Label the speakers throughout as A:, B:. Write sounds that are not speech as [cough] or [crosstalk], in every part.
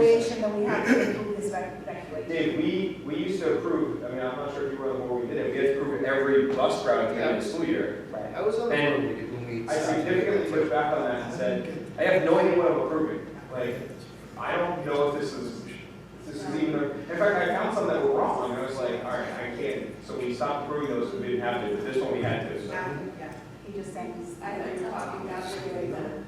A: then we have to approve this rec- regulation.
B: Dave, we, we used to approve, I mean, I'm not sure if you were on the board, when we did it, we had to approve every bus route at the end of the school year.
C: I was on the board
B: And
C: when we.
B: I significantly pushed back on that and said, I have no idea what I'm approving. Like, I don't know if this is, if this is even, in fact, I found some that were wrong, and I was like, all right, I can't. So we stopped approving those, we didn't have to, but this one we had to, so.
A: Now, yeah, he just saying, I know you're talking about the regulation.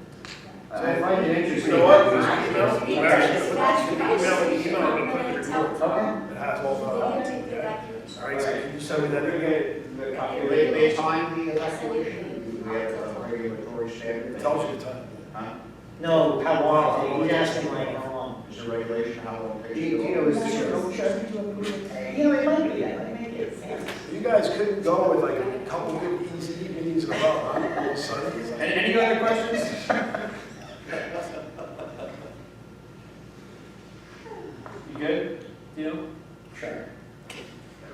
B: I find it interesting.
D: You know what?
B: that
D: This email, when I actually put this email, the email, I'm gonna put the report.
B: Okay.
D: It has all
E: They
D: the.
E: don't take the evacuation.
D: All right, so can you send me that?
B: We're gonna get the copy
C: They,
B: later.
C: they time the evacuation, we have a regulatory standard.
D: It tells you the time.
C: Huh?
F: No, how long, he's asking like how long.
C: Is there regulation, how long
F: Do
C: it takes?
F: you, do you know, is this your own judgment to approve it? You know, it might be, it might make it fast.
D: You guys could go with like a couple good easy evenings in a row, huh? Little Sundays.
B: And any other questions? You good? Deal?
F: Sure.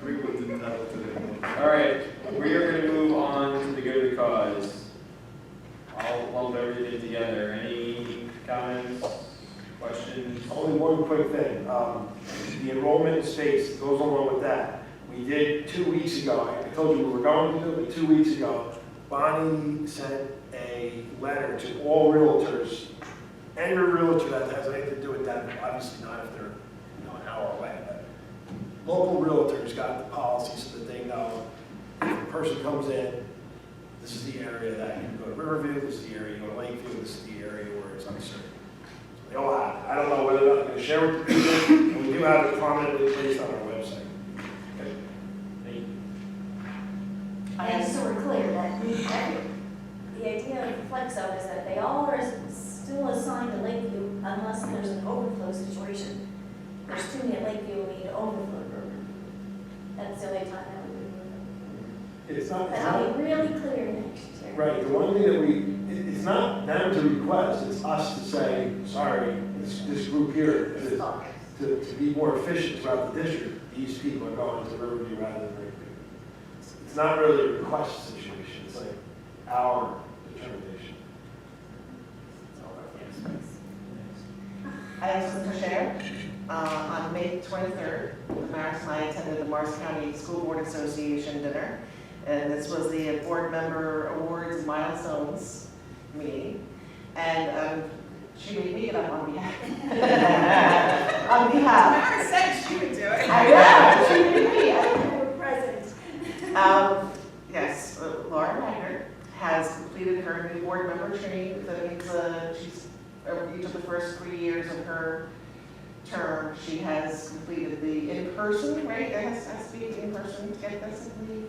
D: We wouldn't have it today.
B: All right, we are gonna move on to the good of the cause. I'll lump everything together. Any comments, questions?
G: Only one quick thing, um, the enrollment in space goes along with that. We did two weeks ago, I told you we were going to do it, but two weeks ago, Bonnie sent a letter to all realtors. Any realtor that has anything to do with that, but obviously not if they're, you know, an hour away. but Local realtors got the policy so that they know, if a person comes in, this is the area that you go to Riverview, this is the area you go to Lakeview, this is the area where it's uncertain. They all have it. I don't know whether or not they're gonna share with people, and we do have it prominently placed on our website.
E: And so we're clear that we, that, the idea of the flex zone is that they all are still assigned to Lakeview unless there's an overflow situation. There's too many at Lakeview, we need an overflow program. That's the only time that we would move them.
G: It's not,
E: But
G: it's
E: I'll
G: not,
E: be really clear next year.
G: right, the one thing that we, it- it's not them to request, it's us to say, sorry, this, this group here, to,
E: Oh,
G: to, to be more efficient throughout the district, these people are going to Riverview rather than Lakeview. It's- It's not really a request situation, it's like our determination.
E: it's all over the place.
H: I have something to share. Uh, On May 23rd, Maris and I attended the Morris County School Board Association dinner, and this was the board member awards milestones meeting. And um, she made me get up on behalf. [laughs] On behalf.
A: Mara said she would do it.
H: I know, she made me. I
E: We're present.
H: um, yes, uh, Laura Ryder has completed her new board member training. That means, uh, she's, uh, each of the first three years of her term, she has completed the in-person, right? It has, has to be in-person to get this, I believe,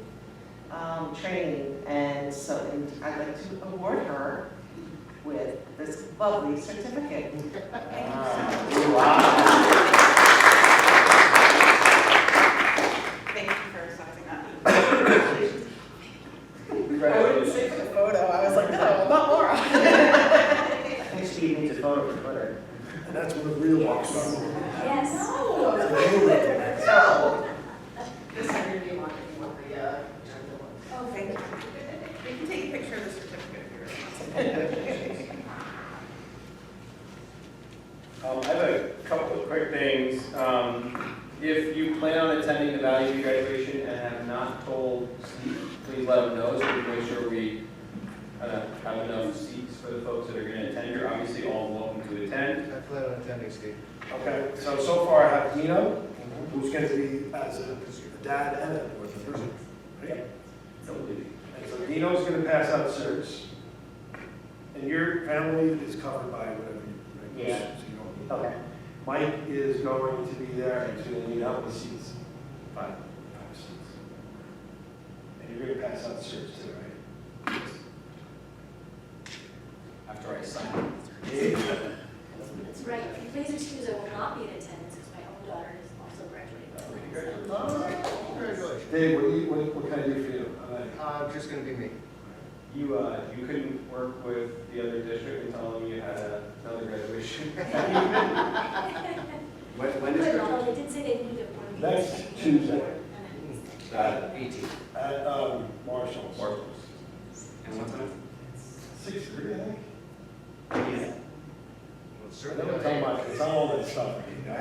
H: um, training. And so, and I'd like to award her with this lovely certificate.
B: Wow.
A: Thank you for sizing that up.
H: I wouldn't say for the photo, I was like, no, not Laura.
F: I think Steve needs a photo for Twitter.
D: And that's when the real walks are.
E: Yes.
H: Oh, [laughs] This is your new one, if you want the, uh, general one.
A: Oh, thank you. You can take a picture of the certificate if you really want.
B: Um, I have a couple of quick things. Um, if you plan on attending the Valley View graduation and have not told Steve, please let him know so we can make sure we uh, have enough seats for the folks that are going to attend. You're obviously all welcome to attend.
C: I plan on attending, Steve.
D: Okay, so, so far I have Nino, who's gonna be as a a dad and a fourth person. right?
B: Don't leave.
D: And so Nino's gonna pass out certs. And your family is covered by whatever you, right?
F: Yeah.
D: So you don't need-
F: Okay.
G: Mike is going to be there, and he's gonna need help with seats, five, five seats. And you're gonna pass out certs too, right?
B: After I sign.
E: That's right. If you please excuse, I will not be in attendance because my own daughter is also graduating.
G: Oh,
C: Uh, Congratulations.
G: Dave, what do you, what, what can I do for you? I'm like,
C: Uh, just gonna be me.
B: You, uh, you couldn't work with the other district and tell them you had a- another graduation?
C: When, when is
E: But
C: your?
E: although they did say they moved it one week.
G: Next Tuesday.
C: Uh, eighteen.
G: At, um, Marshall's.
B: Or- And what time?
G: Six, three, I think.
C: Yeah. Well, certainly.
G: Don't tell Mike, it's not all that stuff.